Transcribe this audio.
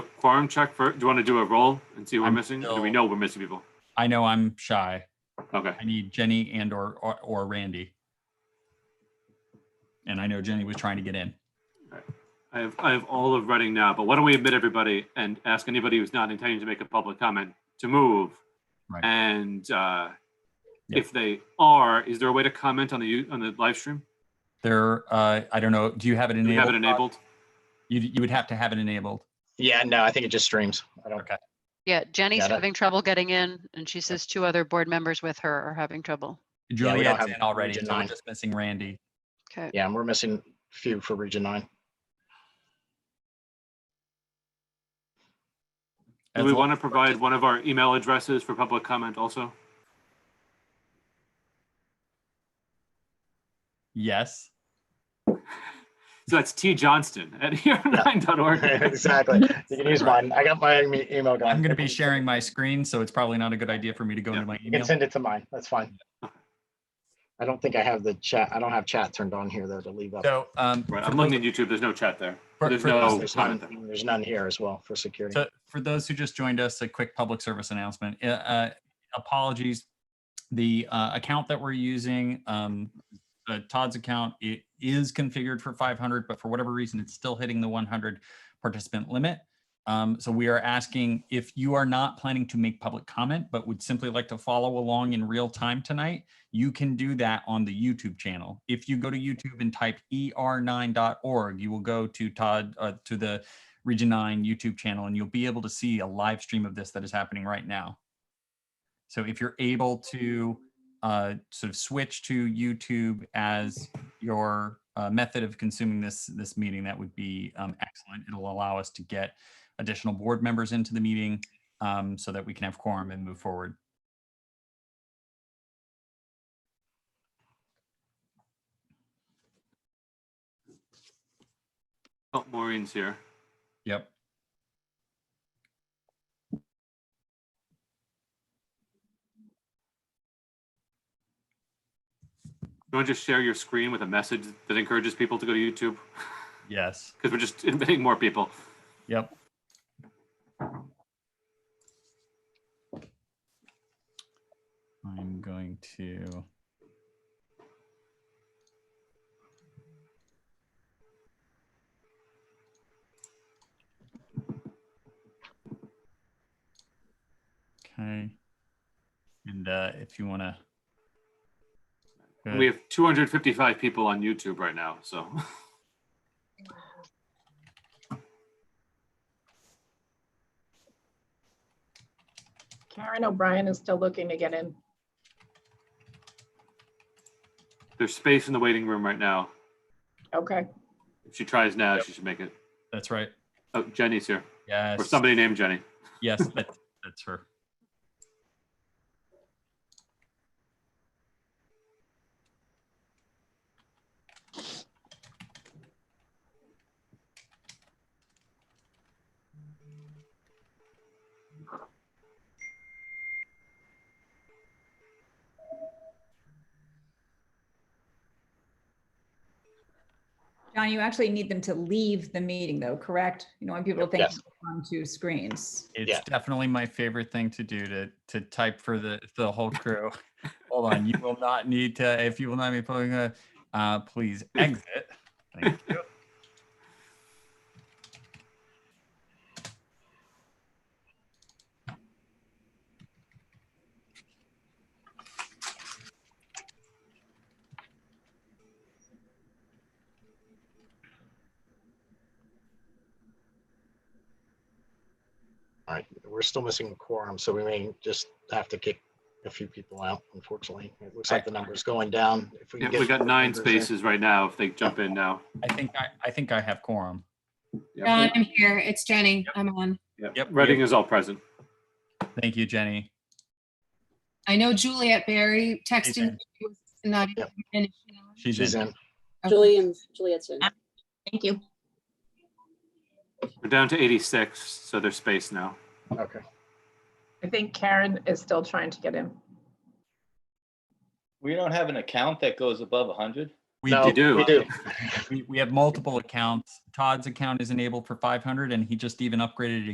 quorum check for, do you want to do a roll and see who we're I'm missing? Do we still- know we're missing people? I know I'm shy. Okay, I need Jenny and or, or or Randy. And I know Jenny was trying to get in. I have, I have all of Reading now, but why don't we admit everybody and ask anybody who's not intending to make a public comment to move? Right. And uh, Yeah. if they are, is there a way to comment on the, you- on the live stream? There, uh, I don't know. Do you have it Do we have enabled? it enabled? You, you would have to have it enabled. Yeah, no, I think it just streams. I don't. Okay. Yeah, Jenny's Got it. having trouble getting in and she says two other board members with her are having trouble. don't Juliet's have in already, Region so we're nine. just missing Randy. Okay, Yeah, and we're missing a few for region nine. Do That's we all. want to provide one of our email addresses for public comment also? Yes. So that's T Johnston at here9.org. exactly. You can use mine. I got my em- email going. I'm going to be sharing my screen, so it's probably not a good idea for me to go Yeah. into my You can email. send it to mine. That's fine. I don't think I have the chat. I don't have chat turned on here though to leave up. So, um, Right, for I'm looking at YouTube. There's no chat there. For- There's for no those- There's comment there. none, there's none here as well for security. So for those who just joined us, a quick public service announcement. Uh, uh, Apologies. The uh, account that we're using, um, uh, Todd's account, it is configured for 500, but for whatever reason, it's still hitting the 100 participant limit. Um, So we are asking if you are not planning to make public comment, but would simply like to follow along in real time tonight, you can do that on the YouTube channel. If you go to YouTube and type E er9.org, you will go to Todd, uh, to the Region 9 YouTube channel, and you'll be able to see a live stream of this that is happening right now. So if you're able to uh, sort of switch to YouTube as your uh, method of consuming this, this meeting, that would be um, excellent. It'll allow us to get additional board members into the meeting um, so that we can have quorum and move forward. Oh, Maureen's here. Yep. You want to just share your screen with a message that encourages people to go to YouTube? Yes. Because we're just admitting more people. Yep. I'm going to. Okay. And uh, if you want to. We have 255 people on YouTube right now, so. Karen O'Brien is still looking to get in. There's space in the waiting room right now. Okay, If she tries now, she should make it. That's right. Oh, Jenny's here, Yes. or somebody named Jenny. Yes, that, that's her. John, you actually need them to leave the meeting though, correct? You know, when people think Yes. on two screens. It's Yeah. definitely my favorite thing to do to to type for the the whole crew. Hold on, you will not need to if you will not be pulling a uh, please exit. Thank you. All right, we're still missing a quorum, so we may just have to kick a few people out, unfortunately. It looks like the number's going down. If Yeah, get we got nine members in. spaces right now if they jump in now. I think I, I think I have quorum. Yeah. John, I'm here. It's Jenny. I'm on. Yep, Reading is all present. Thank you, Jenny. I know Juliet Barry texted. Ethan. me, Not even. Yep. finished. She's, She's in. in. Okay. Julian, Juliet's in. thank you. We're down to 86, so there's space now. Okay. I think Karen is still trying to get in. We don't have an account that goes above 100? We, No, do- do. We do. we we have multiple accounts. Todd's account is enabled for 500, and he just even upgraded it